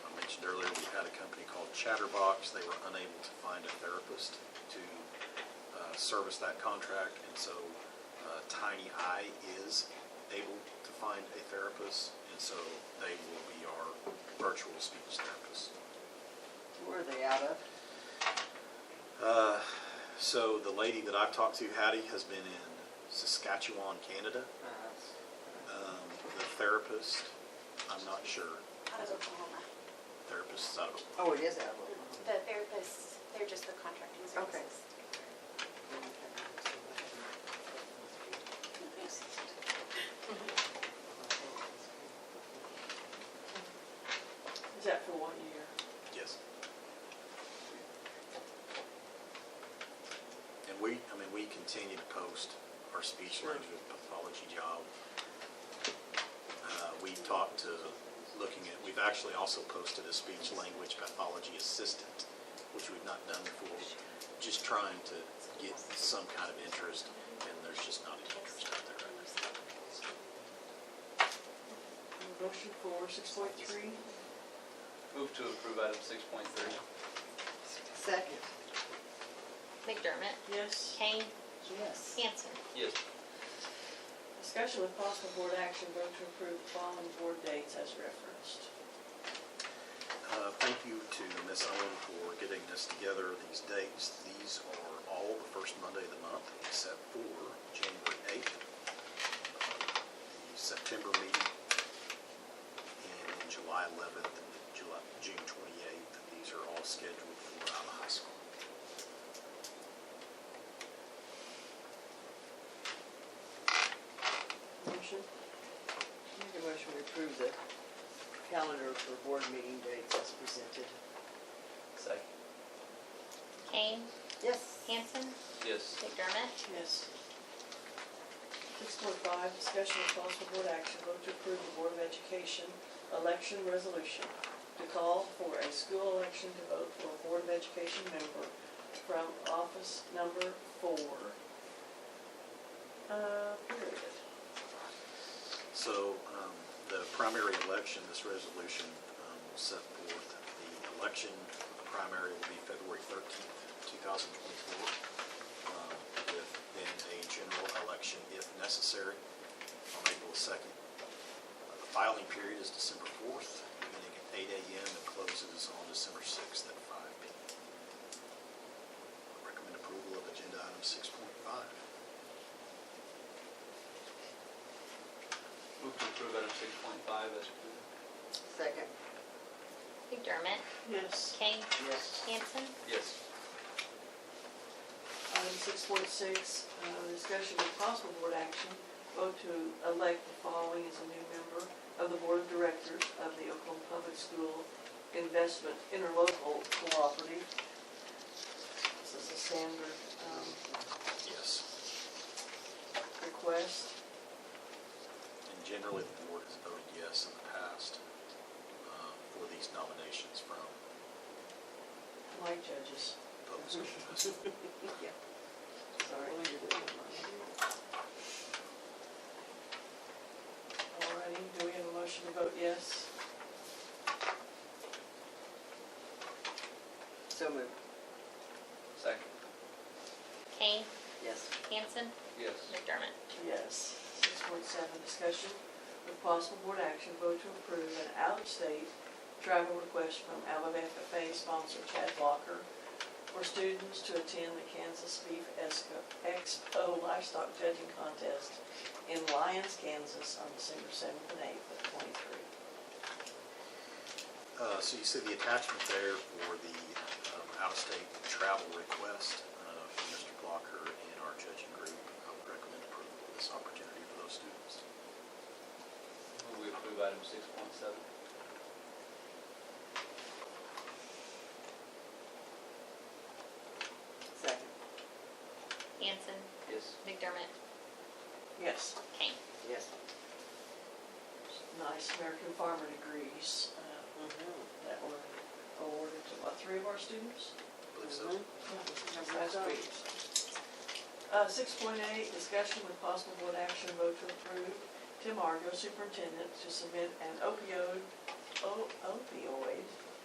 Chatterbox, they were unable to find a therapist to uh, service that contract, and so uh, Tiny Eye is able to find a therapist, and so they will be our virtual speech therapist. Where are they out of? Uh, So the lady that I've talked to, Hattie, has been in Saskatchewan, Canada. Uh, Um, The therapist, I'm not sure, out of Oklahoma. therapist is out of, Oh, it is out of Oklahoma. The therapists, they're just the contracting Okay. services. Is that for one year? yes. And we, I mean, we continue to post our speech language pathology job. Uh, We talked to, looking at, we've actually also posted a speech language pathology assistant, which we've not done before, just trying to get some kind of interest, and there's just not an interest out there right now. Motion for six point three? Move to approve item six point three. Second, McDermott, Yes. Kane, yes. Hanson. Yes. Discussion with possible board action, vote to approve the following board dates as referenced. Uh, Thank you to Ms. Owen for getting this together, these dates. These are all the first Monday of the month except for January 8th, uh, the September meeting, and then July 11th and July, June 28th. These are all scheduled for Iowa High School. Motion? Make a motion to approve the calendar for board meeting dates as presented. Second. Kane, Yes. Hanson, Yes. McDermott, Yes. Six point five, discussion with possible board action, vote to approve the Board of Education election resolution to call for a school election to vote for a Board of Education member from office number four. Uh, period. So um, the primary election, this resolution um, will set forth the election, the primary will be February 13th, 2024, um, with then a general election if necessary on April 2nd. Uh, The filing period is December 4th, beginning at 8 a.m. and closes on December 6th at 5 p.m. Recommend approval of agenda item 6.5. Move to approve item six point five as presented. Second, McDermott, Yes. Kane, yes. Hanson. Yes. Item six point six, uh, discussion with possible board action, vote to elect the following as a new member of the Board of Directors of the Oklahoma Public School Investment Interlocal Cooperative. This is a standard um, Yes. request. And generally, the board has voted yes in the past uh, for these nominations from like judges. public school. investment. Yeah. Sorry. All righty, do we have a motion to vote yes? So moved, Second. Kane, yes. Hanson, Yes. McDermott. Yes. Six point seven, discussion with possible board action, vote to approve an out-of-state travel request from Alabama FFA sponsor Chad Walker for students to attend the Kansas Beef Esco- Expo Livestock Judging Contest in Lyons, Kansas on December seventh and eighth of twenty-three. Uh, So you see the attachment there for the um, out-of-state travel request uh, from Mr. Blocker and our judging group. I would recommend approval of this opportunity for those students. Move we approve item six point seven. Second, Hanson, Yes. McDermott, Yes. Kane. yes. Nice American Farmer degrees uh, Mm-hmm. that were awarded to, what, three of our students? I believe so. Mhm. Last week. Uh, six point eight, discussion with possible board action vote to approve Tim Argo superintendent to submit an opioid, o- opioid